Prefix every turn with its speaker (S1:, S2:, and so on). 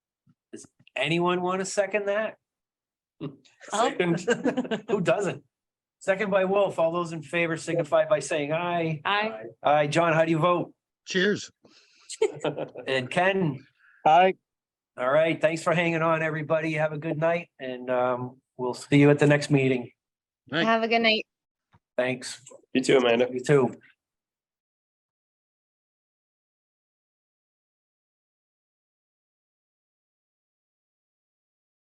S1: Anyone want to second that?
S2: I'll-
S1: Second. Who doesn't? Second by Wolf. All those in favor signify by saying aye.
S2: I,
S1: Aye. John, how do you vote?
S3: Cheers.
S1: And Ken?
S3: Hi.
S1: All right. Thanks for hanging on, everybody. Have a good night and um, we'll see you at the next meeting.
S3: Right.
S4: Have a good night.
S1: Thanks.
S5: You too, Amanda.
S1: You too.